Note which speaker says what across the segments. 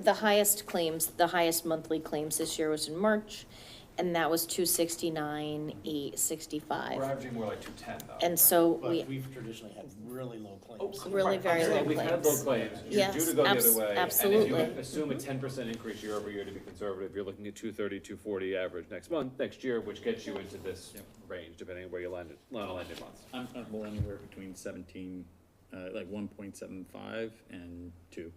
Speaker 1: the highest claims, the highest monthly claims this year was in March, and that was two sixty-nine, eight
Speaker 2: We're
Speaker 1: sixty-five.
Speaker 2: averaging more like two ten though.
Speaker 1: And so we,
Speaker 3: But we've traditionally had really low
Speaker 4: Oh,
Speaker 3: claims.
Speaker 4: come
Speaker 1: Really
Speaker 4: on. I'm
Speaker 1: very
Speaker 4: saying
Speaker 1: low
Speaker 4: We've had low
Speaker 1: claims.
Speaker 4: claims.
Speaker 2: You're due
Speaker 1: Yes,
Speaker 2: to go the
Speaker 1: abs-
Speaker 2: other way. And if
Speaker 1: absolutely.
Speaker 4: Absolutely.
Speaker 2: you assume a ten percent increase year over year to be conservative, you're looking at two thirty, two forty average next month, next year, which gets you into this range, depending on where you landed, line a landing month.
Speaker 5: I'm comfortable anywhere between seventeen, uh, like one point seven five and two.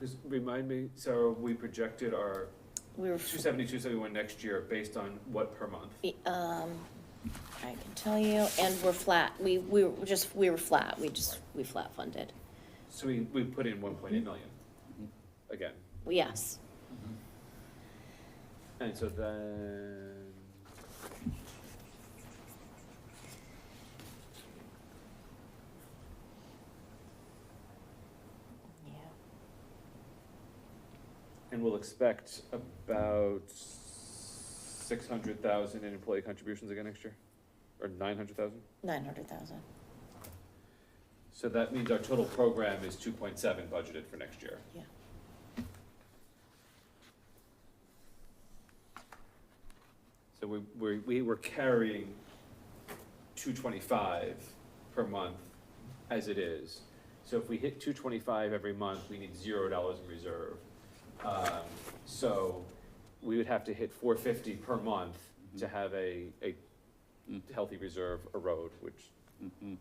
Speaker 2: Just remind me, Sarah, we projected our
Speaker 1: we were,
Speaker 2: two seventy, two seventy-one next year based on what per month?
Speaker 1: um, I can tell you, and we're flat, we, we were just, we were flat, we just, we flat funded.
Speaker 2: So we, we put in one point eight million. Mm-hmm. Again,
Speaker 1: Yes,
Speaker 2: and so then.
Speaker 1: yeah,
Speaker 2: And we'll expect about six hundred thousand in employee contributions again next year, or nine hundred thousand?
Speaker 1: nine hundred thousand.
Speaker 2: So that means our total program is two point seven budgeted for next year.
Speaker 1: Yeah.
Speaker 2: So we, we, we were carrying two twenty-five per month as it is. So if we hit two twenty-five every month, we need zero dollars in reserve. Um, so we would have to hit four fifty per month to have a, a
Speaker 5: Mm.
Speaker 2: healthy reserve erode, which Mm-hmm.
Speaker 5: Mhm.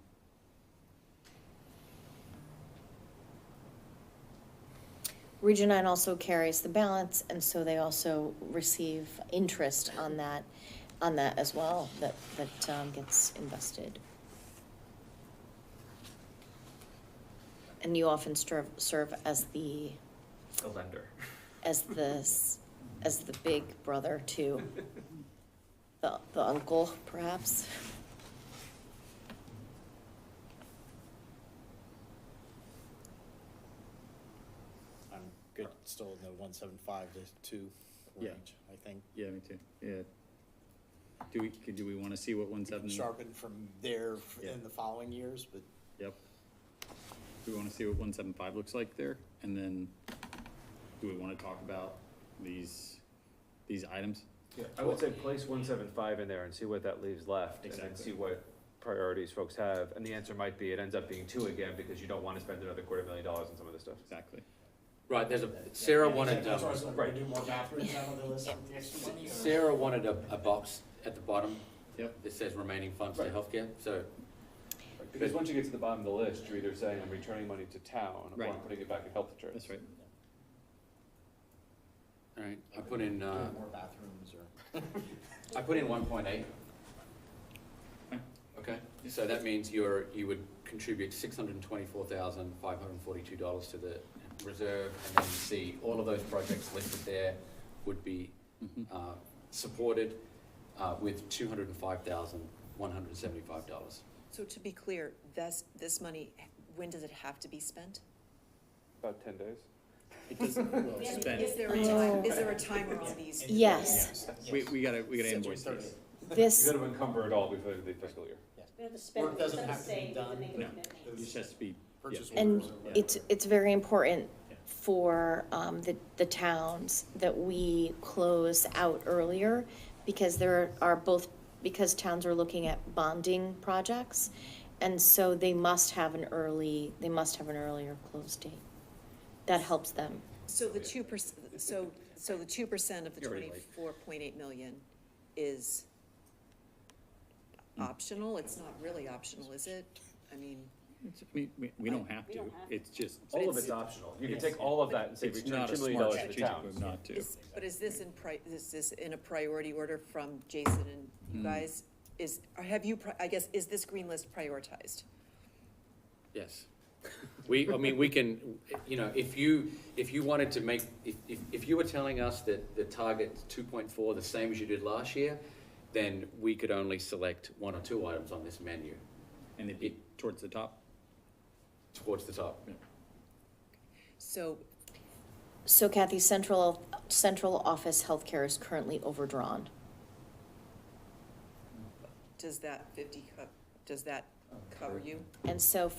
Speaker 1: Region nine also carries the balance, and so they also receive interest on that, on that as well, that, that um, gets invested. And you often serve, serve as the,
Speaker 2: a lender.
Speaker 1: as the, s- as the big brother to the, the uncle, perhaps. Oh.
Speaker 3: I'm good, still in the one seven five to two
Speaker 5: Yeah.
Speaker 3: range, I think.
Speaker 5: Yeah, me too, yeah. Do we, could, do we wanna see what one
Speaker 3: We can
Speaker 5: seven,
Speaker 3: Sharpen from there f-
Speaker 5: Yeah.
Speaker 3: in the following years, but
Speaker 5: yep. Do we wanna see what one seven five looks like there? And then, do we wanna talk about these, these items?
Speaker 2: Yeah, I would say place one seven five in there and see what that leaves left, and then
Speaker 5: Exactly.
Speaker 2: see what priorities folks have, and the answer might be, it ends up being two again, because you don't wanna spend another quarter million dollars on some of this stuff.
Speaker 5: Exactly.
Speaker 6: Right, there's a, Sarah wanted,
Speaker 3: That's why I
Speaker 6: um,
Speaker 3: was like, we're gonna
Speaker 2: right.
Speaker 3: do more bathrooms out of the list of the extra money, or-
Speaker 6: Sarah wanted a, a box at the bottom
Speaker 5: Yep.
Speaker 6: that says remaining funds to
Speaker 2: Right.
Speaker 6: healthcare, so,
Speaker 2: Because once you get to the bottom of the list, you're either saying, I'm returning money to town, or I'm
Speaker 5: Right.
Speaker 2: putting it back in health insurance.
Speaker 5: That's right.
Speaker 6: alright, I put in, uh,
Speaker 3: Do More bathrooms or.
Speaker 6: I put in one point eight.
Speaker 5: Okay.
Speaker 6: Okay, so that means you're, you would contribute six hundred and twenty-four thousand, five hundred and forty-two dollars to the reserve, and then you see all of those projects listed there would be,
Speaker 5: Mhm.
Speaker 6: uh, supported, uh, with two hundred and five thousand, one hundred and seventy-five dollars.
Speaker 7: So to be clear, this, this money, when does it have to be spent?
Speaker 2: About ten days.
Speaker 5: It doesn't, well,
Speaker 7: Is
Speaker 5: spend,
Speaker 7: there a time, is there a timer on these?
Speaker 1: Yes.
Speaker 5: we, we gotta, we gotta
Speaker 3: June
Speaker 5: invoice these.
Speaker 3: 30th.
Speaker 2: You
Speaker 1: This,
Speaker 2: gotta encumber it all before the fiscal year.
Speaker 3: Work doesn't have to be done.
Speaker 5: No, it just has to be, yeah.
Speaker 3: Purchase
Speaker 1: And
Speaker 3: orders or whatever.
Speaker 1: it's, it's very important
Speaker 5: Yeah.
Speaker 1: for um, the, the towns that we close out earlier because there are both, because towns are looking at bonding projects. And so they must have an early, they must have an earlier close date. That helps them.
Speaker 7: So the two percent, so, so the two percent of the
Speaker 5: You're already late.
Speaker 7: twenty-four point eight million is optional? It's not really optional, is it? I mean,
Speaker 5: It's- We, we, we don't have to, it's just.
Speaker 2: All of
Speaker 7: it's-
Speaker 2: it's optional. You can
Speaker 5: Yes.
Speaker 2: take all of that and say,
Speaker 5: It's
Speaker 2: return
Speaker 5: not a
Speaker 2: two million
Speaker 5: smart
Speaker 2: dollars to the
Speaker 5: strategic
Speaker 2: town.
Speaker 5: move not to.
Speaker 7: is, but is this in pri, is this in a priority order from Jason and
Speaker 5: Hmm.
Speaker 7: you guys? Is, or have you, pri- I guess, is this green list prioritized?
Speaker 6: Yes. We, I mean, we can, you know, if you, if you wanted to make, if, if, if you were telling us that the target's two point four, the same as you did last year, then we could only select one or two items on this menu
Speaker 5: And they'd be towards the top.
Speaker 6: towards the top.
Speaker 7: So
Speaker 1: So Kathy, central, central office healthcare is currently overdrawn.
Speaker 7: does that fifty, co- does that uh, cover you?
Speaker 1: And so